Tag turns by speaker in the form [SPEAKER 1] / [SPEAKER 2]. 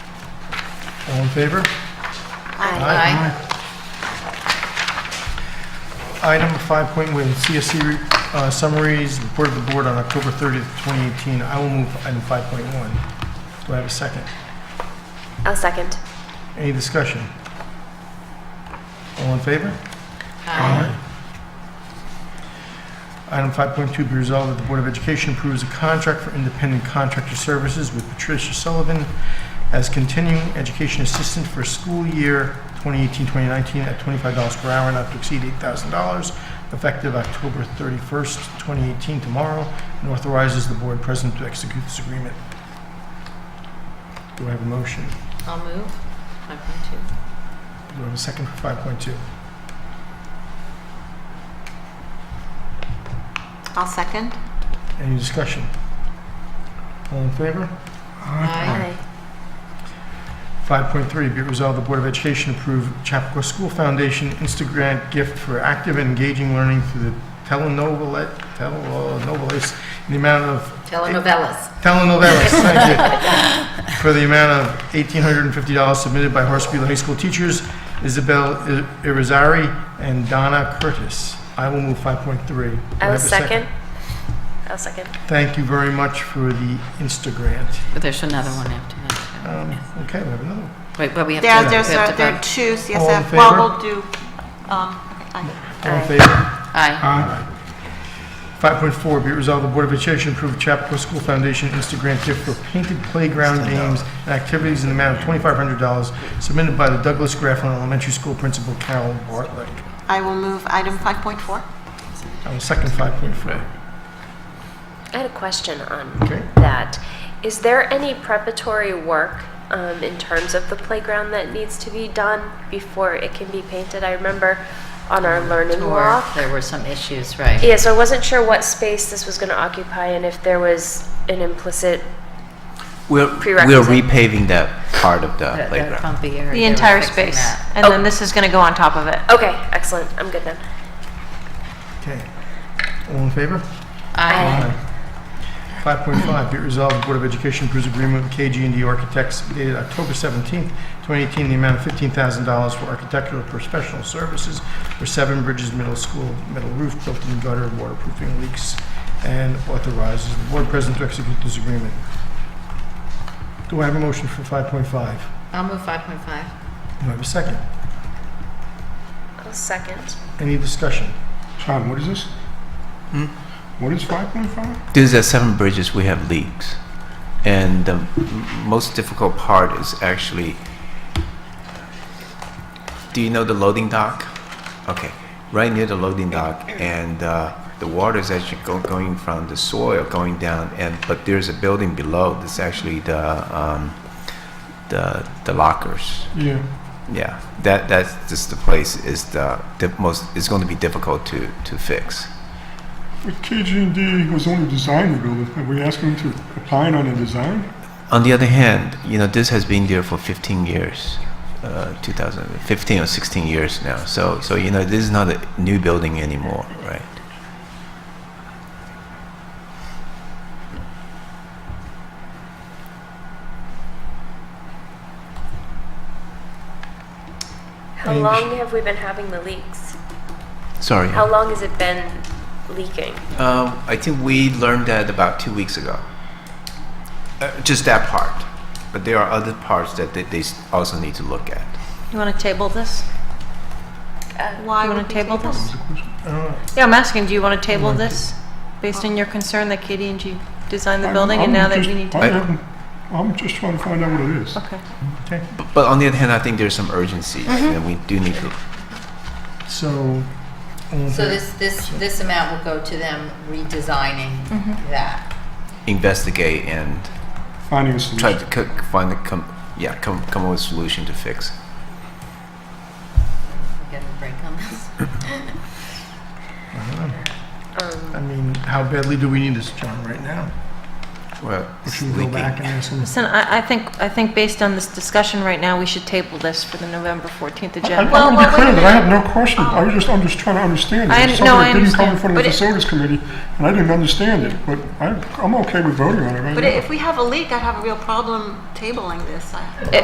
[SPEAKER 1] All in favor?
[SPEAKER 2] Aye.
[SPEAKER 1] Aye. Item 5.1, CSC uh, summaries, report of the board on October 30th, 2018. I will move item 5.1. Do I have a second?
[SPEAKER 3] I'll second.
[SPEAKER 1] Any discussion? All in favor?
[SPEAKER 2] Aye.
[SPEAKER 1] Item 5.2, be resolved that the Board of Education approves a contract for independent contractor services with Patricia Sullivan as continuing education assistant for school year 2018-2019 at $25 per hour, not to exceed $8,000, effective October 31st, 2018, tomorrow, and authorizes the board president to execute this agreement. Do I have a motion?
[SPEAKER 2] I'll move. 5.2.
[SPEAKER 1] Do I have a second for 5.2?
[SPEAKER 2] I'll second.
[SPEAKER 1] Any discussion? All in favor?
[SPEAKER 2] Aye.
[SPEAKER 1] 5.3, be it resolved, the Board of Education approve Chappaqua School Foundation Instagrant gift for active and engaging learning through the telenovelet, telenovelas, in the amount of,
[SPEAKER 2] Telenovelas.
[SPEAKER 1] telenovelas, thank you, for the amount of $1,850 submitted by Horsespear High School teachers Isabel I- Irizarry and Donna Curtis. I will move 5.3. Do
[SPEAKER 3] I
[SPEAKER 1] have a
[SPEAKER 3] will second. I'll second.
[SPEAKER 1] Thank you very much for the Instagrant.
[SPEAKER 4] But there's another one after that.
[SPEAKER 1] Um, Okay, we have another one.
[SPEAKER 4] too. Wait, but we have to,
[SPEAKER 5] There,
[SPEAKER 4] we
[SPEAKER 5] there's,
[SPEAKER 4] have
[SPEAKER 5] a-
[SPEAKER 4] to
[SPEAKER 5] there are
[SPEAKER 4] vote.
[SPEAKER 5] two
[SPEAKER 1] All in
[SPEAKER 5] CSF, well,
[SPEAKER 1] favor?
[SPEAKER 5] we'll do, um, okay, aye.
[SPEAKER 1] All in favor?
[SPEAKER 4] Aye.
[SPEAKER 1] 5.4, be it resolved, the Board of Education approved Chappaqua School Foundation Instagram gift for painted playground games and activities in the amount of $2,500 submitted by the Douglas Grafflin Elementary School Principal Carol Bartlett.
[SPEAKER 5] I will move item 5.4.
[SPEAKER 1] I will second 5.4.
[SPEAKER 3] I had a question on
[SPEAKER 1] Okay.
[SPEAKER 3] that. Is there any preparatory work um, in terms of the playground that needs to be done before it can be painted? I remember on our Learn and
[SPEAKER 4] Or
[SPEAKER 3] Walk.
[SPEAKER 4] there were some issues, right?
[SPEAKER 3] Yeah, so I wasn't sure what space this was going to occupy and if there was an implicit,
[SPEAKER 6] We're, we're
[SPEAKER 3] Prerequisite.
[SPEAKER 6] repaving that part of the
[SPEAKER 4] That- That
[SPEAKER 6] playground.
[SPEAKER 4] bumpy area.
[SPEAKER 7] The
[SPEAKER 4] they were
[SPEAKER 7] entire
[SPEAKER 4] fixing
[SPEAKER 7] space.
[SPEAKER 4] that.
[SPEAKER 7] And then this is going to go on top of it.
[SPEAKER 3] okay, excellent, I'm good then.
[SPEAKER 1] Okay. All in favor?
[SPEAKER 4] Aye.
[SPEAKER 1] 5.5, be it resolved, the Board of Education approves agreement with KG&D Architects dated October 17th, 2018, in the amount of $15,000 for architectural professional services for Seven Bridges Middle School, metal roof, built-in gutter, waterproofing leaks, and authorizes the board president to execute this agreement. Do I have a motion for 5.5? Do I
[SPEAKER 2] I'll move 5.5.
[SPEAKER 1] have a second?
[SPEAKER 3] I'll second.
[SPEAKER 1] Any discussion? Hmm?
[SPEAKER 8] Sean, what is this? What is 5.5?
[SPEAKER 6] These are seven bridges, we have leaks. And the m- most difficult part is actually, do you know the loading dock? Okay, right near the loading dock, and uh, the water is actually go- going from the soil going down, and, but there's a building below that's actually the, um, the the lockers.
[SPEAKER 1] Yeah.
[SPEAKER 6] Yeah, that, that's just the place is the, the most, it's going to be difficult to, to fix.
[SPEAKER 8] But KG&D was only designing the building. Are we asking them to opine on the design?
[SPEAKER 6] On the other hand, you know, this has been there for 15 years, uh, 2015 or 16 years now. So, so you know, this is not a new building anymore, right?
[SPEAKER 3] How
[SPEAKER 1] Any dis-
[SPEAKER 3] long have we been having the leaks?
[SPEAKER 6] Sorry.
[SPEAKER 3] How long has it been leaking?
[SPEAKER 6] Um, I think we learned that about two weeks ago. Uh, just that part, but there are other parts that they, they s- also need to look at.
[SPEAKER 7] You want to table this?
[SPEAKER 5] Why
[SPEAKER 7] You
[SPEAKER 5] would
[SPEAKER 7] want
[SPEAKER 5] we
[SPEAKER 7] to table
[SPEAKER 5] table?
[SPEAKER 7] this?
[SPEAKER 1] Uh,
[SPEAKER 7] Yeah, I'm asking, do you want to table this based on your concern that Katie and you designed the
[SPEAKER 8] I'm-
[SPEAKER 7] building and
[SPEAKER 8] I'm
[SPEAKER 7] now that
[SPEAKER 8] just-
[SPEAKER 7] we need
[SPEAKER 8] I
[SPEAKER 7] to?
[SPEAKER 8] haven't- I'm just trying to find out what it is.
[SPEAKER 7] Okay.
[SPEAKER 1] Okay,
[SPEAKER 6] But, but on the other hand, I think there's some urgency, and we do need to
[SPEAKER 1] so, um, all in
[SPEAKER 2] So
[SPEAKER 1] favor?
[SPEAKER 2] this, this, this amount will go to them redesigning that.
[SPEAKER 6] investigate and
[SPEAKER 8] Finding a
[SPEAKER 6] try
[SPEAKER 8] solution.
[SPEAKER 6] to cook, find the com- yeah, come come up with a solution to fix.
[SPEAKER 2] We Get a break on this.
[SPEAKER 3] Um,
[SPEAKER 1] I mean, how badly do we need this, John, right now?
[SPEAKER 6] Well,
[SPEAKER 1] Or
[SPEAKER 6] it's
[SPEAKER 1] should we go
[SPEAKER 6] leaking.
[SPEAKER 1] back and ask them?
[SPEAKER 7] Listen, I, I think, I think based on this discussion right now, we should table this for the November 14th
[SPEAKER 8] I- I
[SPEAKER 7] agenda.
[SPEAKER 8] want to be clear that I have no question. I was just, I'm just trying to understand it.
[SPEAKER 7] Oh. I-
[SPEAKER 8] It's
[SPEAKER 7] no, I
[SPEAKER 8] something that didn't come in
[SPEAKER 7] understand.
[SPEAKER 8] front of
[SPEAKER 7] But
[SPEAKER 8] the
[SPEAKER 7] it-
[SPEAKER 8] facilities committee, and I didn't understand it, but I, I'm okay with voting on it right now.
[SPEAKER 5] But if we have a leak, I'd have a real problem tabling this. I-